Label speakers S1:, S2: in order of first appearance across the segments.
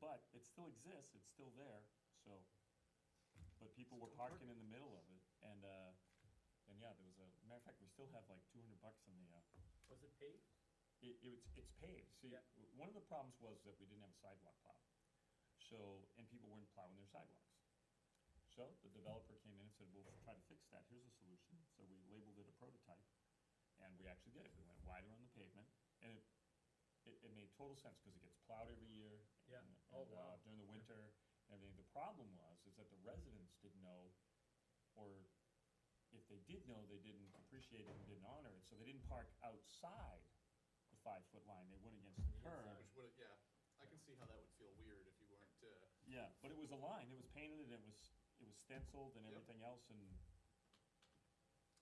S1: But it still exists, it's still there, so, but people were parking in the middle of it, and, uh, and yeah, there was a, matter of fact, we still have like two hundred bucks in the, uh,
S2: Was it paved?
S1: it, it was, it's paved, see,
S2: Yeah.
S1: w- one of the problems was that we didn't have a sidewalk plow. So, and people weren't plowing their sidewalks. So the developer came in and said, we'll try to fix that, here's a solution, so we labeled it a prototype, and we actually did it, we went wider on the pavement, and it, it, it made total sense, cause it gets plowed every year.
S2: Yeah.
S1: and-
S2: Oh,
S1: and, uh,
S2: wow.
S1: During the winter, and everything, the problem was, is that the residents didn't know, or if they did know, they didn't appreciate it and didn't honor it, so they didn't park outside the five-foot line, they went against the curb.
S3: Which would, yeah, I can see how that would feel weird if you weren't, uh,
S1: Yeah, but it was a line, it was painted, and it was, it was stenciled and
S3: Yep.
S1: everything else, and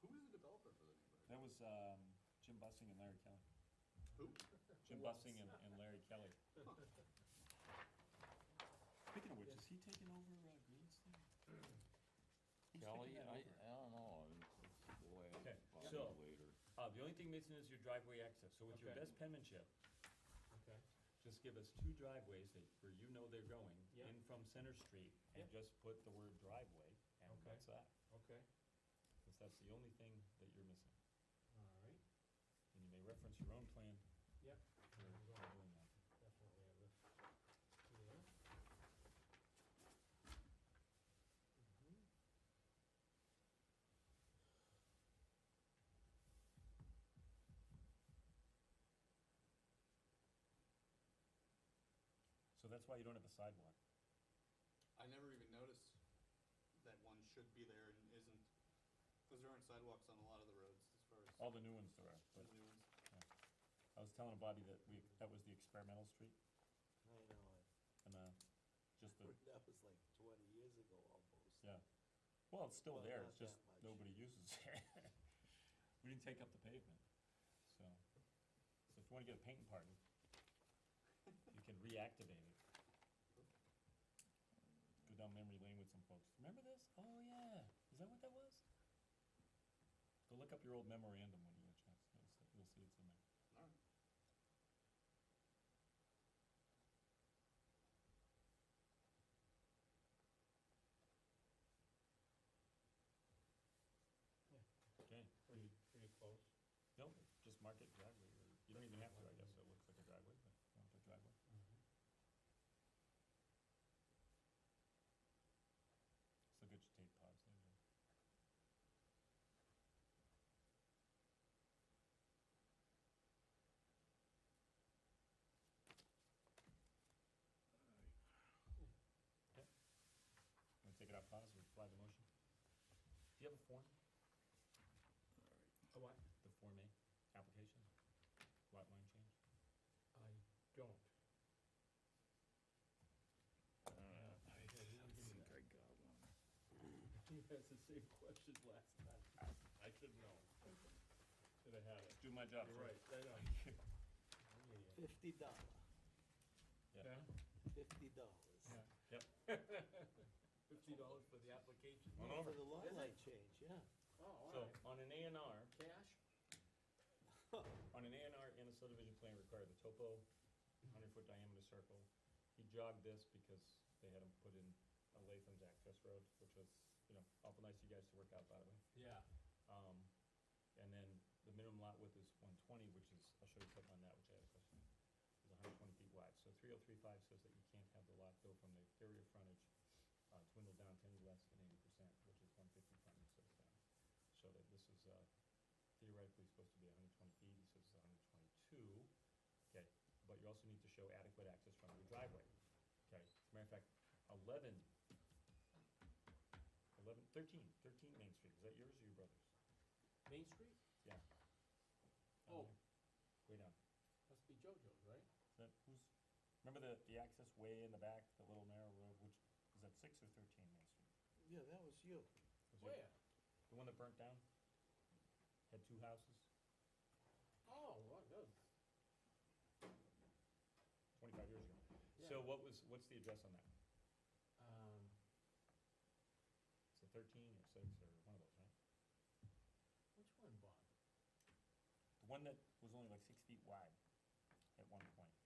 S3: who is the developer for the neighborhood?
S1: that was, um, Jim Bussing and Larry Kelly.
S3: Who?
S1: Jim Bussing and, and Larry Kelly. Speaking of which, is he taking over, uh, Green's thing? Who's taking
S4: Kelly,
S1: that
S4: I, I
S1: over?
S4: don't know, it's the way
S1: Okay,
S4: I
S1: so-
S4: find later.
S1: Uh, the only thing missing is your driveway access, so with your
S2: Okay.
S1: best penmanship,
S2: Okay.
S1: just give us two driveways that, where you know they're going,
S2: Yeah.
S1: in from Center Street, and
S2: Yep.
S1: just put the word driveway, and
S2: Okay.
S1: that's that.
S2: Okay,
S1: Since that's the only thing that you're missing,
S2: all right,
S1: and you may reference your own plan
S2: yep,
S1: for doing that.
S2: definitely have this.
S5: Mm-hmm.
S2: Yeah. Mhm.
S1: So that's why you don't have a sidewalk.
S3: I never even noticed that one should be there and isn't, because there aren't sidewalks on a lot of the roads as far as
S1: All the new ones there are,
S3: the
S1: but,
S3: new ones.
S1: yeah. I was telling Bobby that we, that was the experimental street,
S5: I know,
S1: and, uh, just the,
S5: it. that was like twenty years ago almost.
S1: yeah. Well, it's still
S5: Well,
S1: there,
S5: not
S1: it's just
S5: that much.
S1: nobody uses it. We didn't take up the pavement, so. So if you wanna get a painting party, you can reactivate it. Go down memory lane with some folks. Remember this? Oh, yeah. Is that what that was? Go look up your old memorandum when you get a chance. You'll see- You'll see it's in there.
S3: All right.
S1: Okay.
S2: Pretty, pretty close.
S1: No, just mark it driveway, or, you don't even have to, I guess, so it looks like a driveway, but you don't have a driveway. Mm-hmm. Still get your tape paused there. Okay. Want to take it out pause or flag the motion? Do you have a form,
S2: Oh, what?
S1: the Form A application, lot line change?
S2: I don't.
S1: Uh,
S2: I think I got one. He has the same question last
S1: Ah.
S2: time. I should know. Should have had it.
S1: Do my job,
S2: You're
S1: sir.
S2: right, I know. Yeah, yeah.
S5: Fifty dollar,
S1: Yeah,
S5: fifty dollars.
S1: yeah, yep.
S2: Fifty dollars for the application.
S1: One
S5: For
S1: over.
S5: the law
S2: Is it?
S5: light change, yeah.
S2: Oh, all
S1: So,
S2: right.
S1: on an A and R,
S2: Cash?
S1: on an A and R and a subdivision plan required the topo, hundred foot diameter circle. He jogged this because they had him put in a Latham's access road, which was, you know, awful nice of you guys to work out, by the way.
S2: Yeah.
S1: Um, and then the minimum lot width is one twenty, which is, I'll show you something on that, which I have a question. Is hundred twenty feet wide, so three oh three five says that you can't have the lot go from the exterior frontage, uh, dwindle down to any less than eighty percent, which is one fifty front and six down. So that this is, uh, theoretically supposed to be hundred twenty feet, he says it's hundred twenty-two, okay? But you also need to show adequate access from your driveway, okay? As a matter of fact, eleven, eleven, thirteen, thirteen Main Street, is that yours or your brother's?
S2: Main Street?
S1: Yeah.
S2: Oh.
S1: Um, Way down.
S2: Must be JoJo's, right?
S1: Is that, who's, remember the, the access way in the back, the little narrow road, which, is that six or thirteen Main Street?
S5: Yeah, that was you.
S1: Was it
S2: Where?
S1: The one that burnt down? Had two houses,
S2: Oh, well, that was
S1: twenty-five years ago. So
S2: Yeah.
S1: what was, what's the address on that?
S2: Um,
S1: It's a thirteen or six or one of those, right?
S2: which one, Bob?
S1: The one that was only like six feet wide at one point.